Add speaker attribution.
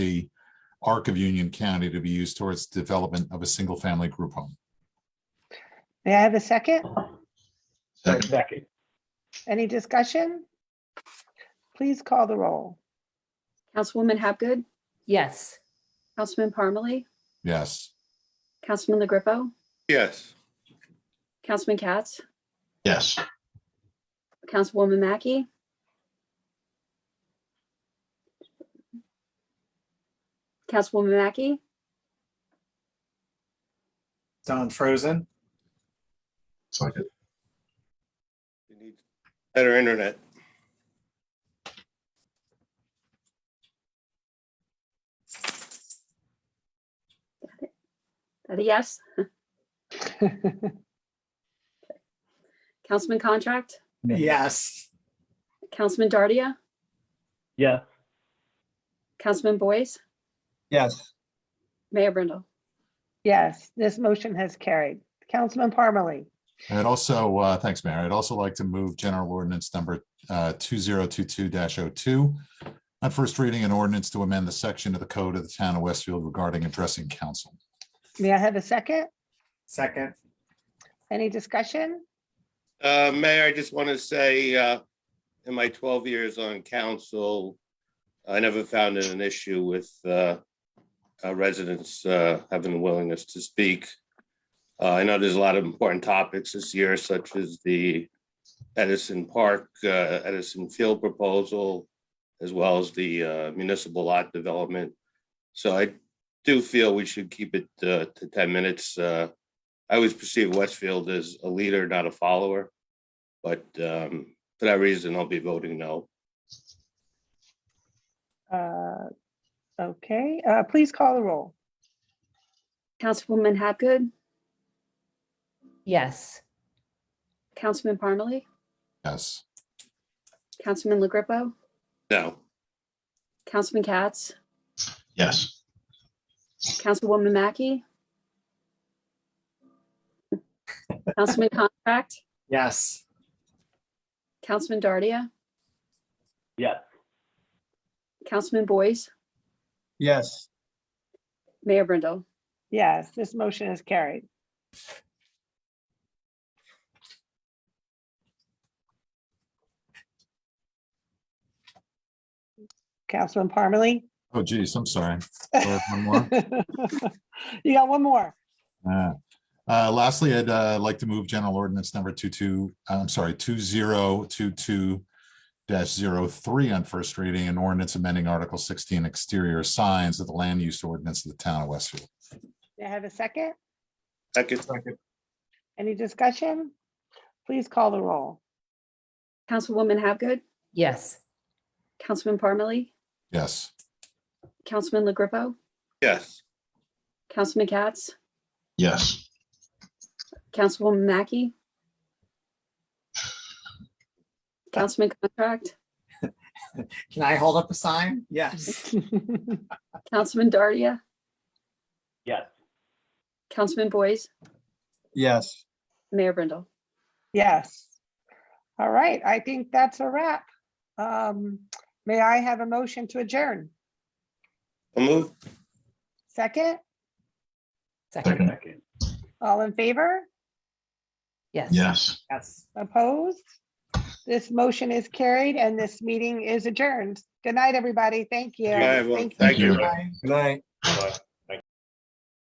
Speaker 1: the arc of Union County to be used towards development of a single-family group home.
Speaker 2: May I have a second?
Speaker 3: Second.
Speaker 4: Second.
Speaker 2: Any discussion? Please call the roll.
Speaker 5: Councilwoman Hapgood,
Speaker 6: Yes.
Speaker 5: Councilman Parmalee,
Speaker 1: Yes,
Speaker 5: Councilman LaGrepo,
Speaker 7: Yes.
Speaker 5: Councilman Katz,
Speaker 3: Yes.
Speaker 5: Councilwoman Mackey. Councilwoman Mackey,
Speaker 4: Don Frozen.
Speaker 3: Second.
Speaker 7: You need Better internet.
Speaker 5: that a yes? Councilman Contract,
Speaker 4: Yes.
Speaker 5: Councilman Dardia,
Speaker 4: Yes.
Speaker 5: Councilman Boyce,
Speaker 4: Yes.
Speaker 5: Mayor Brindle.
Speaker 2: Yes, this motion has carried. Councilman Parmalee,
Speaker 1: and I'd also, uh, thanks, Mayor. I'd also like to move general ordinance number uh, two zero two two 2 On first reading, an ordinance to amend the section of the code of the town of Westfield regarding addressing council.
Speaker 2: may I have a second?
Speaker 4: Second.
Speaker 2: Any discussion?
Speaker 7: Uh, Mayor, I just want to say, uh, in my twelve years on council, I never found it an issue with, uh, uh, residents, uh, having the willingness to speak. Uh, I know there's a lot of important topics this year, such as the Edison Park, uh, Edison Field proposal, as well as the uh, municipal lot development. So I do feel we should keep it, uh, to ten minutes, uh, I always perceive Westfield as a leader, not a follower. But um, for that reason, I'll be voting no.
Speaker 2: Uh, Okay, uh, please call the roll.
Speaker 5: Councilwoman Hapgood,
Speaker 6: Yes.
Speaker 5: Councilman Parmalee,
Speaker 1: Yes,
Speaker 5: Councilman LaGrepo,
Speaker 7: No,
Speaker 5: Councilman Katz,
Speaker 3: Yes.
Speaker 5: Councilwoman Mackey. Councilman Contract,
Speaker 4: Yes.
Speaker 5: Councilman Dardia,
Speaker 4: Yes.
Speaker 5: Councilman Boyce,
Speaker 4: Yes.
Speaker 5: Mayor Brindle.
Speaker 2: Yes, this motion is carried. Councilman Parmalee?
Speaker 1: oh geez, I'm sorry. Go ahead, one more.
Speaker 2: You got one more.
Speaker 1: Uh, uh, Lastly, I'd uh, like to move general ordinance number 22, I'm sorry, 2022 03 on first reading and ordinance amending Article 16 exterior signs of the land use ordinance of the town of Westfield.
Speaker 2: May I have a second?
Speaker 7: second,
Speaker 2: Any discussion? Please call the roll.
Speaker 5: Councilwoman Hapgood,
Speaker 6: Yes.
Speaker 5: Councilman Parmalee,
Speaker 1: Yes,
Speaker 5: Councilman LaGrepo,
Speaker 7: yes,
Speaker 5: Councilman Katz,
Speaker 3: Yes.
Speaker 5: Councilwoman Mackey. Councilman Contract,
Speaker 4: Can I hold up a sign? Yes.
Speaker 5: Councilman Dardia,
Speaker 4: Yes.
Speaker 5: Councilman Boyce,
Speaker 4: Yes.
Speaker 5: Mayor Brindle.
Speaker 2: Yes. All right, I think that's a wrap. Um, May I have a motion to adjourn?
Speaker 7: I'll move,
Speaker 2: Second,
Speaker 6: Second.
Speaker 2: all in favor?
Speaker 6: Yes.
Speaker 3: Yes.
Speaker 4: Yes.
Speaker 2: Opposed? This motion is carried and this meeting is adjourned. Good night, everybody. Thank you.
Speaker 7: All right, well,
Speaker 2: Thank you.
Speaker 7: thank you.
Speaker 4: Good night.